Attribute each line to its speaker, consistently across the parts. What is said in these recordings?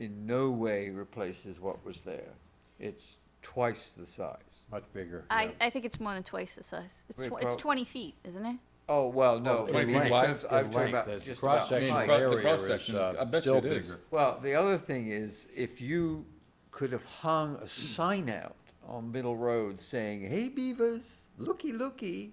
Speaker 1: in no way replaces what was there. It's twice the size.
Speaker 2: Much bigger.
Speaker 3: I, I think it's more than twice the size. It's,
Speaker 1: Wait,
Speaker 3: tw- it's
Speaker 1: prob-
Speaker 3: 20 feet, isn't it?
Speaker 1: Oh, well, no.
Speaker 2: Oh,
Speaker 1: in
Speaker 2: in
Speaker 1: terms-
Speaker 2: length,
Speaker 1: I'm talking
Speaker 2: in length,
Speaker 1: about
Speaker 2: that's
Speaker 1: just about
Speaker 2: Cross-sectional
Speaker 1: height.
Speaker 4: Cross- the
Speaker 2: area is
Speaker 4: cross-section's- I
Speaker 2: uh,
Speaker 4: bet you
Speaker 2: still
Speaker 4: it is.
Speaker 2: bigger.
Speaker 1: Well, the other thing is, if you could have hung a sign out on Middle Road saying, hey beavers, looky, looky,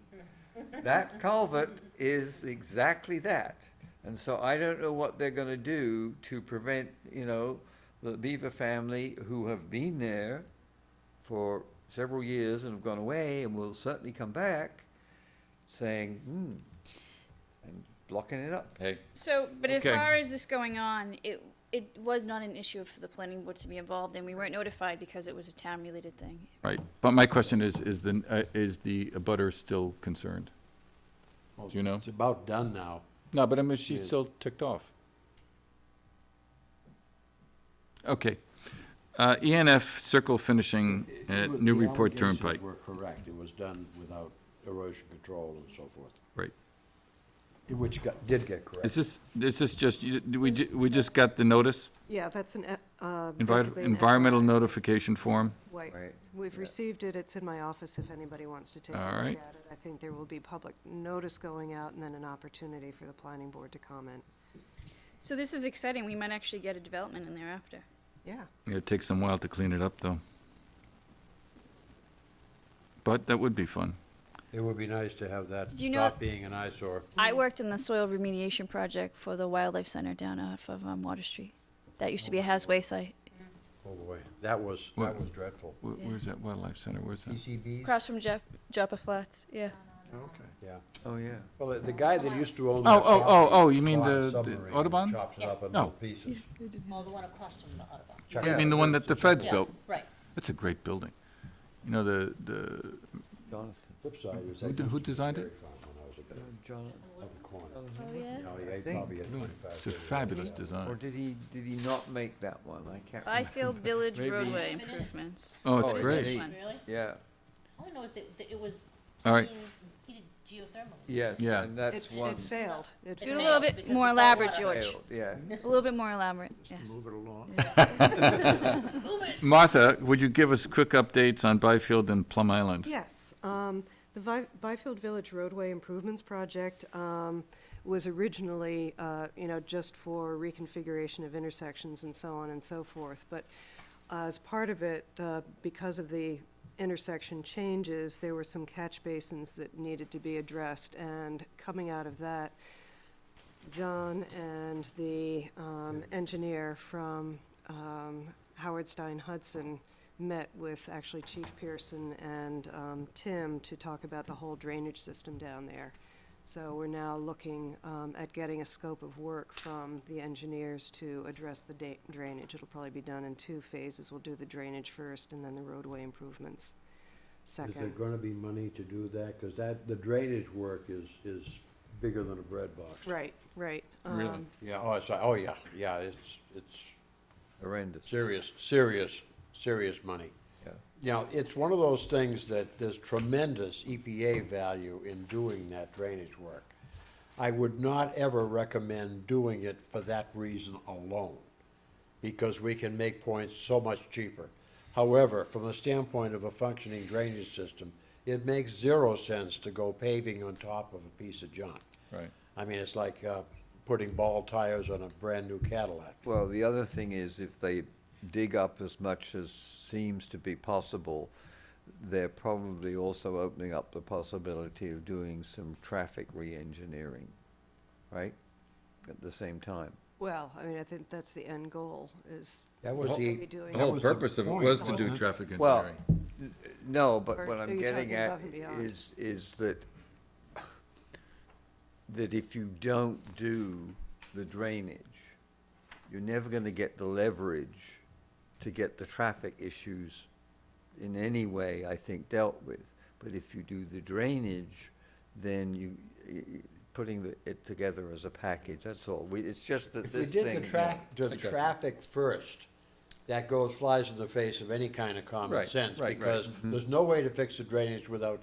Speaker 1: that culvert is exactly that. And so I don't know what they're gonna do to prevent, you know, the beaver family who have been there for several years and have gone away and will certainly come back saying, hmm, and blocking it up.
Speaker 4: Hey,
Speaker 3: So, but as
Speaker 4: Okay.
Speaker 3: far as this going on, it, it was not an issue for the planning board to be involved in. We weren't notified because it was a town-related thing.
Speaker 4: right, but my question is, is the, uh, is the abutter still concerned?
Speaker 2: Well,
Speaker 4: Do you know?
Speaker 2: It's about done now.
Speaker 4: No, but I mean,
Speaker 2: Yeah.
Speaker 4: she's still ticked off. Okay, uh, ENF circle finishing
Speaker 2: It
Speaker 4: at
Speaker 2: was-
Speaker 4: New
Speaker 2: the
Speaker 4: Report
Speaker 2: allegations
Speaker 4: Turnpike,
Speaker 2: Were correct. It was done without erosion control and so forth,
Speaker 4: right.
Speaker 2: which got, did get
Speaker 4: Is
Speaker 2: correct.
Speaker 4: this, is this just, you- do we, ju- we just got the notice?
Speaker 5: Yeah, that's an, e- uh,
Speaker 4: Envi-
Speaker 5: basically. an
Speaker 4: Environmental
Speaker 5: FYI.
Speaker 4: notification form?
Speaker 5: Right.
Speaker 1: Right,
Speaker 5: We've
Speaker 1: yeah.
Speaker 5: received it. It's in my office if anybody wants to take a
Speaker 4: All
Speaker 5: look at
Speaker 4: right.
Speaker 5: it. I think there will be public notice going out and then an opportunity for the planning board to comment.
Speaker 3: So this is exciting. We might actually get a development in there after.
Speaker 5: Yeah.
Speaker 4: It takes some while to clean it up, though. But that would be fun.
Speaker 2: It would be nice to have that
Speaker 3: Do you know-
Speaker 2: stop being an eyesore.
Speaker 3: I worked in the soil remediation project for the Wildlife Center down off of um, Water Street. That used to be a Hasway site,
Speaker 2: Oh, boy, that was,
Speaker 4: What?
Speaker 2: that was dreadful. E
Speaker 4: Where, where's that wildlife center, where's that?
Speaker 2: PCBs?
Speaker 3: across from Jap- Joppa Flats, yeah.
Speaker 2: Yeah.
Speaker 1: Oh, yeah.
Speaker 2: Well, the- the guy that used to own
Speaker 4: Oh,
Speaker 2: that
Speaker 4: oh, oh,
Speaker 2: property
Speaker 4: oh, you mean
Speaker 2: flies
Speaker 4: the- the
Speaker 2: submarine and
Speaker 4: Audubon?
Speaker 2: Chops it
Speaker 6: Yeah.
Speaker 2: up in
Speaker 4: No.
Speaker 2: little pieces.
Speaker 6: Oh, the one across from the Audubon.
Speaker 2: Chuck
Speaker 1: Yeah.
Speaker 4: I
Speaker 2: it
Speaker 4: mean, the
Speaker 2: up.
Speaker 4: one that the feds built.
Speaker 6: Right.
Speaker 4: That's a great building. You know, the, the,
Speaker 1: Jonathan, uh,
Speaker 2: Flip side is
Speaker 4: Who
Speaker 2: that
Speaker 4: de- who
Speaker 2: used to be
Speaker 4: designed
Speaker 2: dairy
Speaker 4: it?
Speaker 2: farm when I was a kid,
Speaker 1: Jonathan.
Speaker 2: up the corner.
Speaker 3: Oh, yeah.
Speaker 2: You know, he ate
Speaker 1: think-
Speaker 2: probably at 25,
Speaker 4: it's a
Speaker 2: 30.
Speaker 4: fabulous
Speaker 1: Or
Speaker 4: design.
Speaker 1: did he, did he not make that one? I can't remember.
Speaker 3: Byfield Village
Speaker 1: Maybe-
Speaker 3: roadway improvements.
Speaker 4: Oh, it's
Speaker 1: Oh, it's
Speaker 4: great.
Speaker 1: neat.
Speaker 6: Really?
Speaker 1: Yeah,
Speaker 6: All I know is that, that it was.
Speaker 4: All right.
Speaker 6: being Heated geothermally.
Speaker 1: yes,
Speaker 4: Yeah.
Speaker 1: and
Speaker 5: It,
Speaker 1: that's one.
Speaker 5: it failed. It
Speaker 3: Do it a
Speaker 5: failed.
Speaker 3: little
Speaker 6: Because
Speaker 3: bit
Speaker 6: it's
Speaker 3: more
Speaker 6: all
Speaker 3: elaborate,
Speaker 6: water.
Speaker 3: George.
Speaker 1: failed, Yeah,
Speaker 3: A little bit more elaborate, yes.
Speaker 4: Martha, would you give us quick updates on Byfield and Plum Island?
Speaker 5: Yes, um, the Vi- Byfield Village roadway improvements project, um, was originally, uh, you know, just for reconfiguration of intersections and so on and so forth. But as part of it, uh, because of the intersection changes, there were some catch basins that needed to be addressed. And coming out of that, John and the um, engineer from um, Howard Stein Hudson met with actually Chief Pearson and um, Tim to talk about the whole drainage system down there. So we're now looking um, at getting a scope of work from the engineers to address the da- drainage. It'll probably be done in two phases. We'll do the drainage first and then the roadway improvements
Speaker 2: Is there
Speaker 5: second.
Speaker 2: gonna be money to do that? Cause that, the drainage work is, is bigger than a bread box.
Speaker 5: Right, right.
Speaker 4: Really?
Speaker 5: um,
Speaker 2: Yeah, oh, it's, oh, yeah, yeah, it's, it's
Speaker 1: horrendous,
Speaker 2: serious, serious, serious money.
Speaker 1: yeah.
Speaker 2: You know, it's one of those things that there's tremendous EPA value in doing that drainage work. I would not ever recommend doing it for that reason alone, because we can make points so much cheaper. However, from the standpoint of a functioning drainage system, it makes zero sense to go paving on top of a piece of junk.
Speaker 4: Right.
Speaker 2: I mean, it's like, uh, putting ball tires on a brand-new Cadillac.
Speaker 1: Well, the other thing is, if they dig up as much as seems to be possible, they're probably also opening up the possibility of doing some traffic re-engineering, right? At the same time.
Speaker 5: Well, I mean, I think that's the end goal, is
Speaker 2: That was
Speaker 5: what are
Speaker 2: the,
Speaker 5: we doing?
Speaker 4: The whole
Speaker 2: was the
Speaker 4: purpose of it
Speaker 2: point,
Speaker 4: was to
Speaker 2: wasn't
Speaker 4: do
Speaker 2: it?
Speaker 4: traffic
Speaker 1: Well,
Speaker 4: engineering.
Speaker 1: n- no, but
Speaker 5: Or
Speaker 1: what
Speaker 5: are
Speaker 1: I'm
Speaker 5: you
Speaker 1: getting
Speaker 5: talking
Speaker 1: at
Speaker 5: above and beyond?
Speaker 1: is, is that, that if you don't do the drainage, you're never gonna get the leverage to get the traffic issues in any way, I think, dealt with. But if you do the drainage, then you, y- y- putting the- it together as a package, that's all. We, it's just that
Speaker 2: If we
Speaker 1: this
Speaker 2: did the
Speaker 1: thing.
Speaker 2: tra the
Speaker 4: got you.
Speaker 2: traffic first, that goes, flies in the face of any kind of common
Speaker 4: Right,
Speaker 2: sense,
Speaker 4: right, Mm-hmm. right.
Speaker 2: because there's no way to fix the drainage without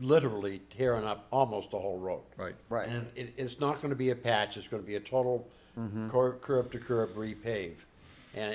Speaker 2: literally tearing up almost the whole road.
Speaker 4: Right.
Speaker 1: Right.
Speaker 4: Mm-hmm.
Speaker 2: And it, it's not gonna be a patch, it's gonna be a total cur- curb to curb repave.